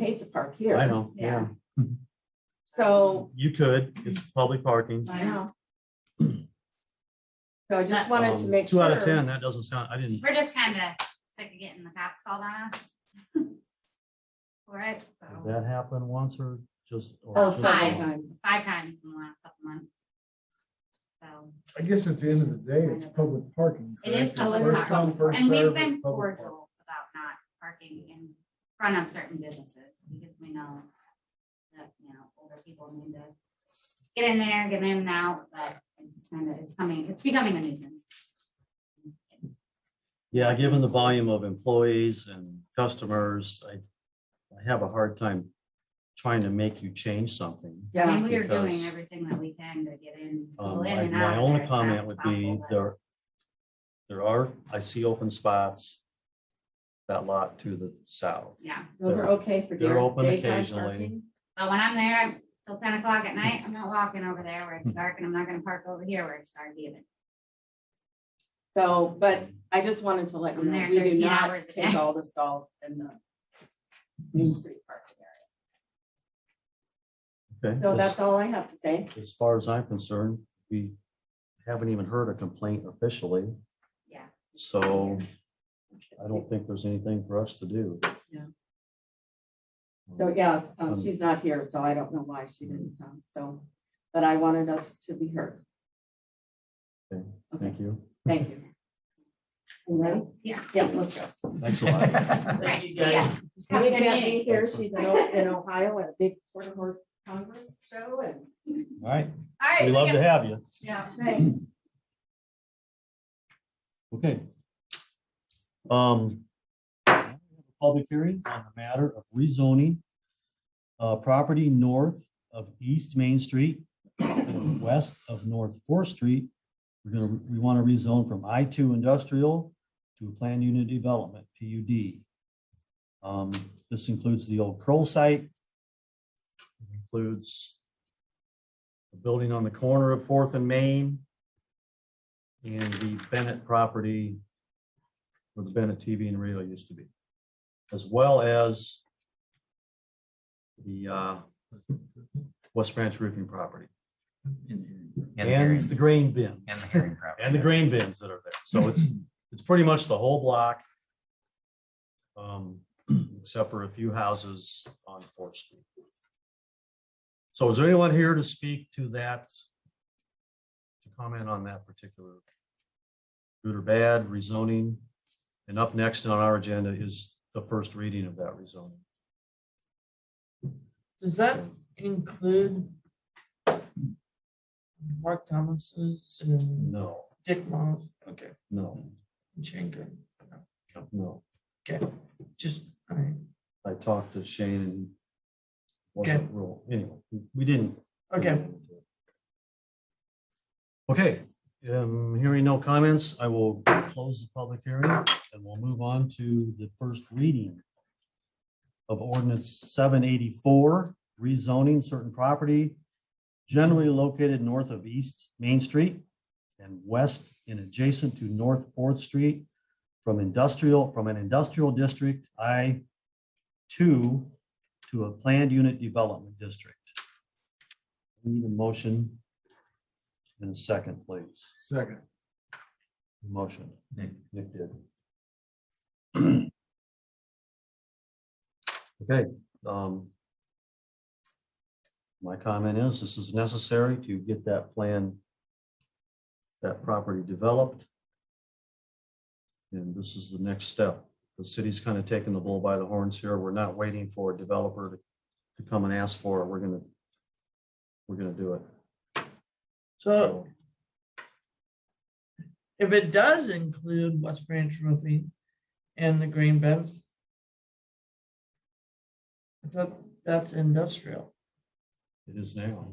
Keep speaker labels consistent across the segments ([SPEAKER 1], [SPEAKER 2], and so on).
[SPEAKER 1] need to park here.
[SPEAKER 2] I know, yeah.
[SPEAKER 1] So,
[SPEAKER 2] You could, it's public parking.
[SPEAKER 1] I know. So I just wanted to
[SPEAKER 2] Um,
[SPEAKER 1] make sure.
[SPEAKER 2] Two out of ten, that doesn't sound, I didn't,
[SPEAKER 3] We're just kind of sick of getting the cops called on us. For it,
[SPEAKER 2] did
[SPEAKER 3] so
[SPEAKER 2] that happened once or just? or
[SPEAKER 1] Oh,
[SPEAKER 2] just
[SPEAKER 3] five.
[SPEAKER 2] once?
[SPEAKER 1] times.
[SPEAKER 3] five times in the last couple months. So,
[SPEAKER 4] I guess at the end of the day, it's public parking.
[SPEAKER 3] It is
[SPEAKER 4] correct? It's
[SPEAKER 3] public
[SPEAKER 4] first
[SPEAKER 1] parking.
[SPEAKER 4] come, first
[SPEAKER 3] and we've
[SPEAKER 4] served,
[SPEAKER 3] been
[SPEAKER 4] it's public parking.
[SPEAKER 3] cordial about not parking in front of certain businesses because we know that, you know, older people need to get in there, get in and out, but it's kind of, it's coming, it's becoming a nuisance.
[SPEAKER 2] Yeah, given the volume of employees and customers, I, I have a hard time trying to make you change something.
[SPEAKER 3] I
[SPEAKER 1] Yeah,
[SPEAKER 3] mean, we are doing
[SPEAKER 2] Because-
[SPEAKER 3] everything that we can to get in. people
[SPEAKER 2] Um,
[SPEAKER 3] in
[SPEAKER 2] I-
[SPEAKER 3] and out
[SPEAKER 2] my
[SPEAKER 3] of there
[SPEAKER 2] only
[SPEAKER 3] as
[SPEAKER 2] comment
[SPEAKER 3] fast
[SPEAKER 2] would
[SPEAKER 3] as
[SPEAKER 2] be
[SPEAKER 3] possible, but-
[SPEAKER 2] there, there are, I see open spots. That lot to the south.
[SPEAKER 3] Yeah,
[SPEAKER 1] those are okay for
[SPEAKER 2] They're
[SPEAKER 1] day-
[SPEAKER 2] open
[SPEAKER 1] daytime
[SPEAKER 2] occasionally.
[SPEAKER 1] parking.
[SPEAKER 3] but when I'm there till ten o'clock at night, I'm not walking over there where it's dark and I'm not gonna park over here where it's dark either.
[SPEAKER 1] So, but I just wanted to let you
[SPEAKER 3] I'm
[SPEAKER 1] know,
[SPEAKER 3] there
[SPEAKER 1] we do
[SPEAKER 3] 13
[SPEAKER 1] not
[SPEAKER 3] hours a
[SPEAKER 1] take
[SPEAKER 3] day.
[SPEAKER 1] all the stalls in the Main Street parking area.
[SPEAKER 2] Okay,
[SPEAKER 1] So
[SPEAKER 2] as-
[SPEAKER 1] that's all I have to say.
[SPEAKER 2] As far as I'm concerned, we haven't even heard a complaint officially,
[SPEAKER 3] Yeah.
[SPEAKER 2] so I don't think there's anything for us to do.
[SPEAKER 1] Yeah. So, yeah, um,
[SPEAKER 2] Um,
[SPEAKER 1] she's not here, so I don't know why she didn't come, so, but I wanted us to be heard.
[SPEAKER 2] Okay,
[SPEAKER 1] Okay,
[SPEAKER 2] Thank you.
[SPEAKER 1] thank you. You ready?
[SPEAKER 3] Yeah.
[SPEAKER 1] Yeah, let's go.
[SPEAKER 2] Thanks a lot.
[SPEAKER 3] Right, so yeah. Have a
[SPEAKER 1] We
[SPEAKER 3] good
[SPEAKER 1] can't
[SPEAKER 3] meeting.
[SPEAKER 1] be here. She's in O- in Ohio at a big quarter horse congress show and.
[SPEAKER 2] All right,
[SPEAKER 3] All right.
[SPEAKER 2] we
[SPEAKER 3] so
[SPEAKER 2] love
[SPEAKER 3] yeah.
[SPEAKER 2] to have you.
[SPEAKER 1] Yeah.
[SPEAKER 2] Okay. Um. Public hearing on the matter of rezoning. Uh, property north of East Main Street and west of North Fourth Street. We're gonna, we want to rezone from I two industrial to a planned unit development, PUD. Um, this includes the old Kroll site. It Includes the building on the corner of Fourth and Main and the Bennett property where the Bennett TV and radio used to be, as well as the uh, West Branch roofing property
[SPEAKER 5] And the
[SPEAKER 2] and the
[SPEAKER 5] hearing,
[SPEAKER 2] grain bins.
[SPEAKER 5] and the hearing property.
[SPEAKER 2] and the grain bins that are there. So it's, it's pretty much the whole block. Um, except for a few houses on Fourth Street. So is there anyone here to speak to that? To comment on that particular good or bad rezoning? And up next on our agenda is the first reading of that rezoning.
[SPEAKER 6] Does that include Mark Thomas's and
[SPEAKER 2] No,
[SPEAKER 6] Dick Moss? Okay,
[SPEAKER 2] no,
[SPEAKER 6] Shanker,
[SPEAKER 2] no.
[SPEAKER 6] okay, just, all right,
[SPEAKER 2] I talked to Shane and he wasn't real, anyway, we didn't
[SPEAKER 6] okay.
[SPEAKER 2] Okay, um, hearing no comments, I will close the public hearing and we'll move on to the first reading of ordinance seven eighty-four, rezoning certain property generally located north of East Main Street and west and adjacent to North Fourth Street from industrial, from an industrial district, I two, to a planned unit development district. Need a motion in a second, please.
[SPEAKER 4] Second,
[SPEAKER 2] Motion.
[SPEAKER 5] Nick.
[SPEAKER 2] Nick did. Okay, um. My comment is this is necessary to get that plan. That property developed. And this is the next step. The city's kind of taking the bull by the horns here. We're not waiting for a developer to- to come and ask for it. We're gonna. We're gonna do it.
[SPEAKER 6] So if it does include West Branch Roofing and the grain bins, I thought that's industrial,
[SPEAKER 2] It is now.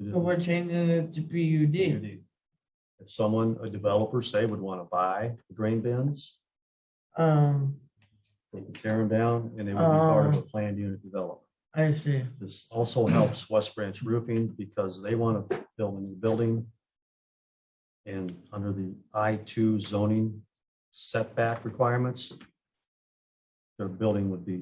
[SPEAKER 2] It is
[SPEAKER 6] but we're changing it to PUD.
[SPEAKER 2] community. If someone, a developer, say would want to buy the grain bins,
[SPEAKER 6] Um,
[SPEAKER 2] they could tear them down and they would be part of a planned unit development.
[SPEAKER 6] I see,
[SPEAKER 2] This also helps West Branch Roofing because they want to build a new building. And under the I two zoning setback requirements, their building would be